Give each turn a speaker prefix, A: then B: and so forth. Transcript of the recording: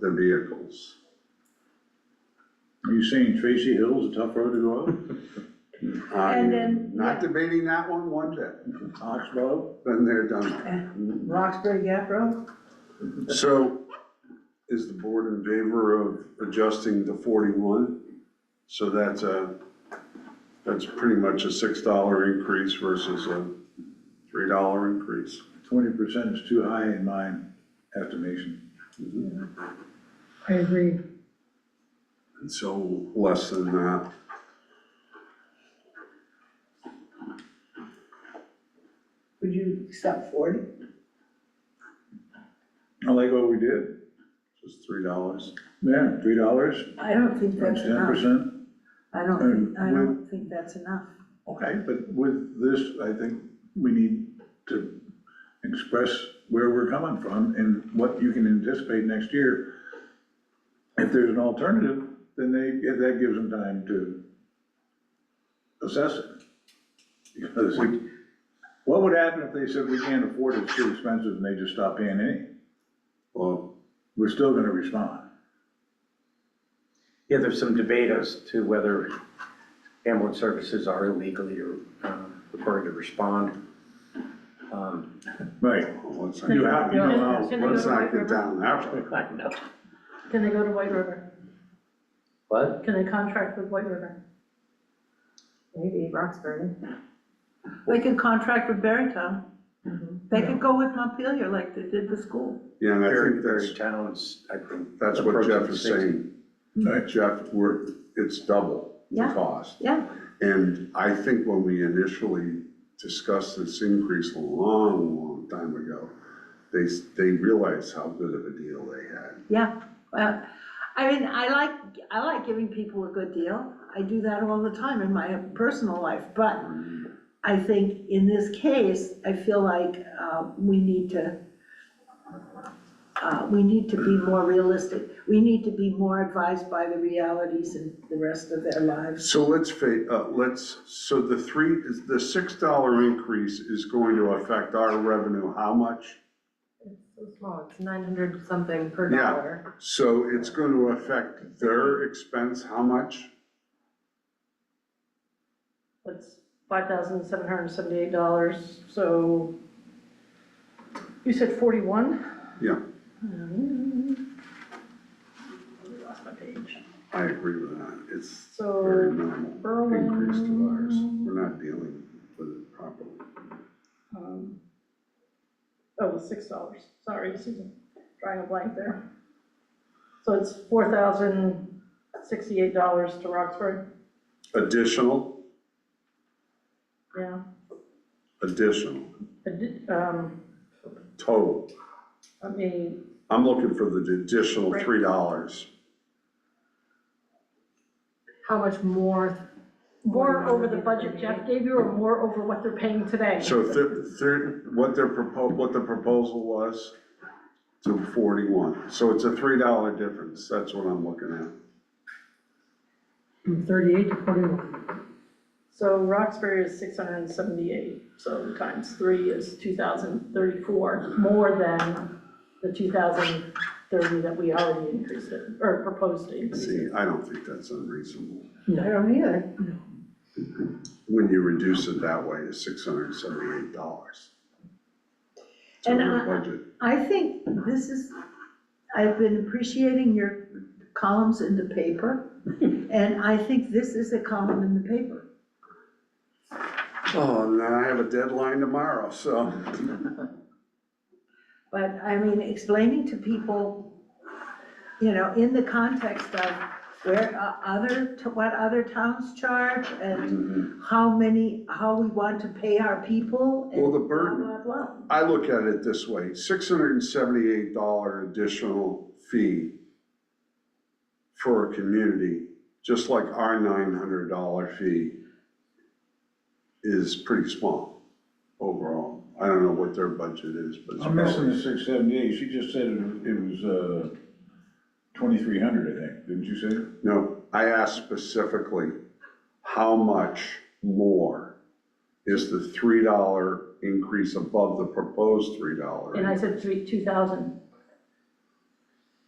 A: the vehicles.
B: You saying Tracy Hill's a tough road to go up?
A: I'm
C: then,
A: Not
C: yeah.
A: debating that one one bit,
B: Oxbow?
A: been there, done that.
C: Roxbury Gap Road?
D: So is the board in favor of adjusting to forty-one? So that's a, that's pretty much a six dollar increase versus a three dollar increase.
B: Twenty percent is too high in my estimation.
C: I agree.
D: And so less than that.
C: Would you accept forty?
B: I like what we did.
D: Just three dollars.
B: Yeah, three dollars,
E: I don't think
B: that's
E: that's
B: ten
E: enough.
B: percent.
E: I don't
B: And
E: think, I
B: with-
E: don't think that's enough.
B: Okay, but with this, I think we need to express where we're coming from and what you can anticipate next year. If there's an alternative, then they, if that gives them time to assess it. Because what would happen if they said, we can't afford it, it's too expensive, and they just stop paying any?
D: Well,
B: We're still gonna respond.
F: Yeah, there's some debate as to whether ambulance services are illegally um, required to respond. Um,
B: Right.
D: let's not,
B: You have, you know,
C: Gonna go
A: Let's
C: to
A: not
C: White
A: get
C: River?
A: down that way.
F: I know.
C: Can they go to White River?
F: What?
C: Can they contract with White River?
G: Maybe Roxbury.
E: They could contract with Barrington.
C: Mm-hmm.
E: They could go with Montpelier like they did the school.
D: yeah, and I
F: Very,
D: think
F: very
D: that's,
F: towns, I think.
D: that's what
F: approaching
D: Jeff is
F: 60.
D: saying.
B: Right.
D: Jeff, we're, it's double the
E: Hmm. Yeah.
D: cost.
E: Yeah.
D: And I think when we initially discussed this increase a long, long time ago, they, s- they realized how good of a deal they had.
E: Yeah, well, I mean, I like, I like giving people a good deal. I do that all the time in my personal life, but I think in this case, I feel like uh, we need to, uh, we need to be more realistic. We need to be more advised by the realities and the rest of their lives.
D: So let's fa, uh, let's, so the three, is the six dollar increase is going to affect our revenue, how much?
G: It's so small, it's nine hundred something per
D: Yeah.
G: dollar.
D: So it's gonna affect their expense, how much?
H: That's five thousand seven hundred and seventy-eight dollars, so you said forty-one?
D: Yeah,
H: I Lost my page.
D: I agree with that, it's
H: So,
D: very minimal
H: Berlin-
D: increase to ours, we're not dealing with it properly.
H: Um, Oh, the six dollars, sorry, Susan, drawing a blank there. So it's four thousand sixty-eight dollars to Roxbury,
D: Additional,
H: yeah.
D: additional,
H: Addi- Um,
D: total.
H: I mean,
D: I'm looking for the additional
H: Right.
D: three dollars.
G: How much more?
H: more over the budget Jeff gave you or more over what they're paying today?
D: So if they're- they're- what their propo, what the proposal was to forty-one. So it's a three dollar difference, that's what I'm looking at.
G: From thirty-eight to forty-one.
H: So Roxbury is six hundred and seventy-eight, so times three is two thousand thirty-four, more than the two thousand thirty that we already increased it, or proposed to increase it.
D: See, I don't think that's unreasonable.
C: I don't either.
D: When you reduce it that way to six hundred and seventy-eight dollars. To
E: And
D: our
E: I-
D: budget.
E: I think this is, I've been appreciating your columns in the paper, and I think this is a column in the paper.
D: Oh, and then I have a deadline tomorrow, so.
E: But I mean, explaining to people, you know, in the context of where uh, other, to what other towns charge and
D: Mhm.
E: how many, how we want to pay our people and
D: Well, the
E: blah,
D: burden-
E: blah, blah.
D: I look at it this way, six hundred and seventy-eight dollar additional fee for a community, just like our nine hundred dollar fee is pretty small overall. I don't know what their budget is, but it's
B: I'm missing the
D: probably,
B: six seventy-eight, she just said it was- it was, uh, twenty-three hundred, I think, didn't you say?
D: no, I asked specifically, how much more is the three dollar increase above the proposed three dollar?
H: And I said three, two thousand